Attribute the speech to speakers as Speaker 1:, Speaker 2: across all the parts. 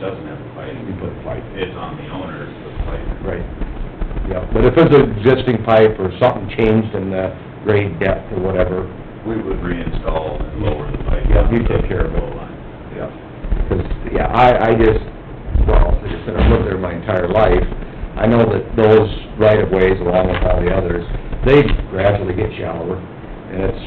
Speaker 1: doesn't have a pipe,
Speaker 2: You put pipe.
Speaker 1: it's on the owner to put pipe.
Speaker 2: Right, yeah, but if it's an existing pipe or something changed in the grade depth or whatever,
Speaker 1: We would reinstall and lower the pipe.
Speaker 2: Yeah, we take care of it.
Speaker 1: Low line.
Speaker 2: yeah. 'Cause, yeah, I, I just, well, like I said, I've lived there my entire life, I know that those right-of-ways along with all the others, they gradually get shallower, and it's,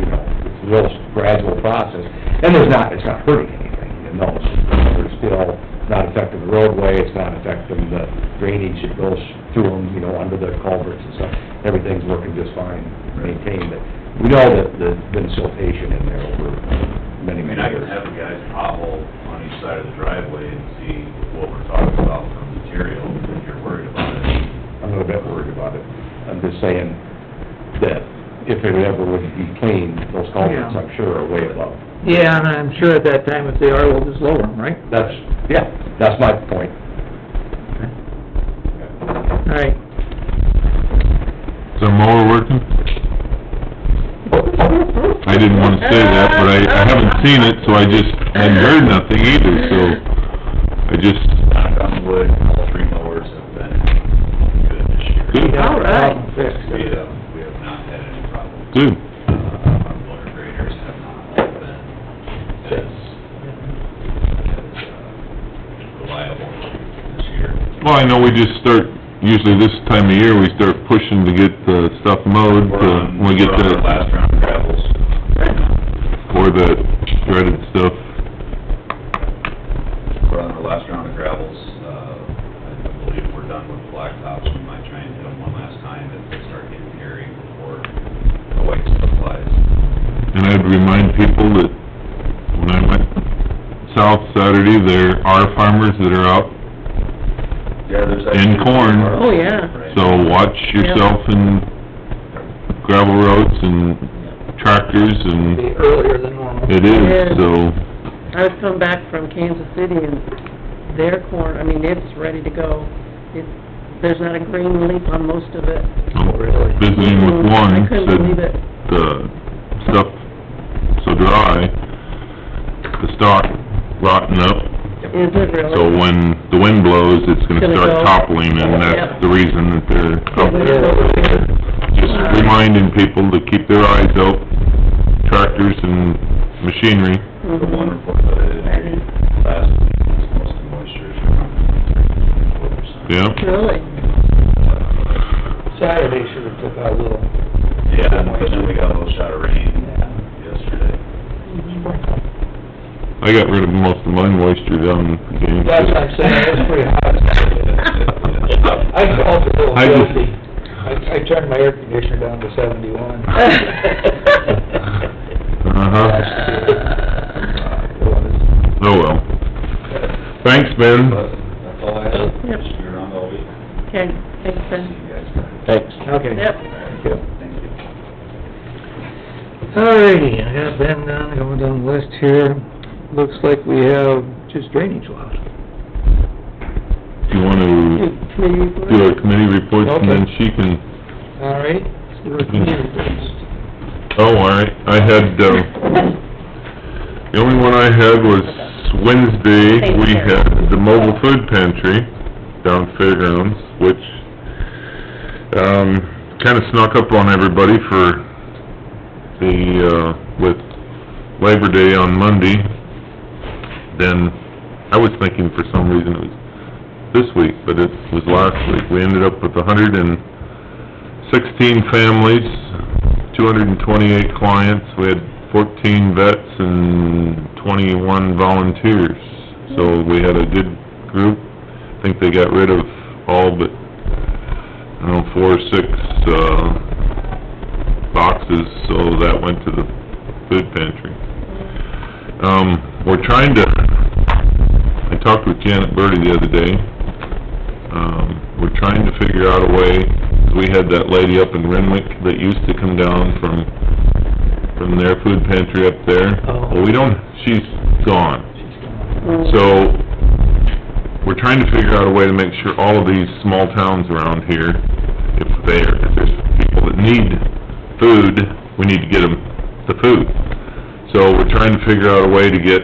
Speaker 2: you know, it's a real gradual process, and there's not, it's not hurting anything, you know, it's still not affecting the roadway, it's not affecting the drainage that goes through them, you know, under the culverts and stuff, everything's working just fine, maintained, but we know that there's been siltation in there over
Speaker 1: I
Speaker 2: many,
Speaker 1: mean,
Speaker 2: many
Speaker 1: I can
Speaker 2: years.
Speaker 1: have the guys hobble on each side of the driveway and see what we're talking about from material, if you're worried about it.
Speaker 2: I'm not a bit worried about it. I'm just saying that if it ever would be clean, those culverts, I'm sure, are way above.
Speaker 3: Yeah, and I'm sure at that time, if they are, we'll just lower them, right?
Speaker 2: That's, yeah, that's my point.
Speaker 3: All right,
Speaker 4: Is our mower working? I didn't wanna say that, but I, I haven't seen it, so I just, I heard nothing either, so I just,
Speaker 1: Knock on wood, all three mowers have been good this year.
Speaker 4: good,
Speaker 3: all right.
Speaker 1: We have, we have not had any problems.
Speaker 4: good.
Speaker 1: Uh, our motor graders have not all been as, as uh, reliable this year.
Speaker 4: Well, I know we just start, usually this time of year, we start pushing to get the stuff mowed,
Speaker 1: We're
Speaker 4: to-
Speaker 1: on,
Speaker 4: uh, when we
Speaker 1: we're
Speaker 4: get
Speaker 1: on
Speaker 4: the,
Speaker 1: our last round of gravels.
Speaker 4: or the shredded stuff.
Speaker 1: We're on our last round of gravels. Uh, I believe we're done with blacktops. We might try and hit them one last time if they start getting hairy before the white stuff flies.
Speaker 4: And I'd remind people that when I went south Saturday, there are farmers that are out,
Speaker 1: Yeah, there's.
Speaker 4: And
Speaker 1: actually-
Speaker 4: corn.
Speaker 3: Oh, yeah.
Speaker 1: Right.
Speaker 4: so watch yourself in gravel roads and tractors and...
Speaker 3: Be earlier than normal.
Speaker 4: It is, so,
Speaker 5: I was coming back from Kansas City and their corn, I mean, it's ready to go. It's, there's not a green leaf on most of it.
Speaker 4: I'm visiting with one,
Speaker 5: Mm-hmm. I couldn't
Speaker 4: said
Speaker 5: believe it.
Speaker 4: the stuff so dry, the stalk rotten up.
Speaker 5: Is it really?
Speaker 4: So when the wind blows, it's gonna
Speaker 5: Gonna
Speaker 4: start
Speaker 5: go.
Speaker 4: toppling, and that's
Speaker 5: Yep.
Speaker 4: the reason that they're out there.
Speaker 5: Yeah.
Speaker 4: Just reminding people to keep their eyes out, tractors and machinery.
Speaker 1: The
Speaker 5: Mhm.
Speaker 1: one report that I did hear you last week was most of the moisture is from the weather side.
Speaker 4: Yeah.
Speaker 5: Really?
Speaker 3: Saturday should've took out a little.
Speaker 1: Yeah, and then we got a little shot of rain yesterday.
Speaker 4: I got rid of most of my moisture down in...
Speaker 3: That's what I'm saying, it was pretty hot. I felt a little
Speaker 4: I just-
Speaker 3: guilty. I, I turned my air conditioner down to seventy-one.
Speaker 4: Uh-huh. Oh, well. Thanks, Ben.
Speaker 1: But that's all I have.
Speaker 5: Yep.
Speaker 1: Just be around all week.
Speaker 5: Okay, thanks,
Speaker 1: See
Speaker 5: Ben.
Speaker 1: you guys. All
Speaker 2: Thanks.
Speaker 3: Okay.
Speaker 5: Yep.
Speaker 1: right.
Speaker 2: Yeah.
Speaker 1: Thank you.
Speaker 3: Alrighty, I got Ben down, going down the list here. Looks like we have just drainage left.
Speaker 4: Do you wanna
Speaker 5: Committee
Speaker 4: do
Speaker 5: report?
Speaker 4: our committee reports and then
Speaker 3: Okay.
Speaker 4: she can,
Speaker 3: Alright, let's do our community first.
Speaker 4: oh, all right. I had, uh, the only one I had was Wednesday, we had the mobile food pantry down Fairgrounds, which, um, kinda snuck up on everybody for the, uh, with Labor Day on Monday. Then, I was thinking for some reason it was this week, but it was last week. We ended up with hundred and sixteen families, two hundred and twenty-eight clients. We had fourteen vets and twenty-one volunteers. So we had a good group. I think they got rid of all but, I don't know, four or six, uh, boxes, so that went to the food pantry. Um, we're trying to I talked with Janet Birdie the other day. Um, we're trying to figure out a way, we had that lady up in Renwick that used to come down from, from their food pantry up there.
Speaker 3: Oh.
Speaker 4: Well, we don't, she's gone.
Speaker 3: She's gone.
Speaker 5: Mm-hmm.
Speaker 4: So, we're trying to figure out a way to make sure all of these small towns around here, if they're, if there's people that need food, we need to get them the food. So, we're trying to figure out a way to get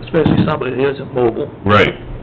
Speaker 3: especially somebody that isn't mobile.
Speaker 4: Right.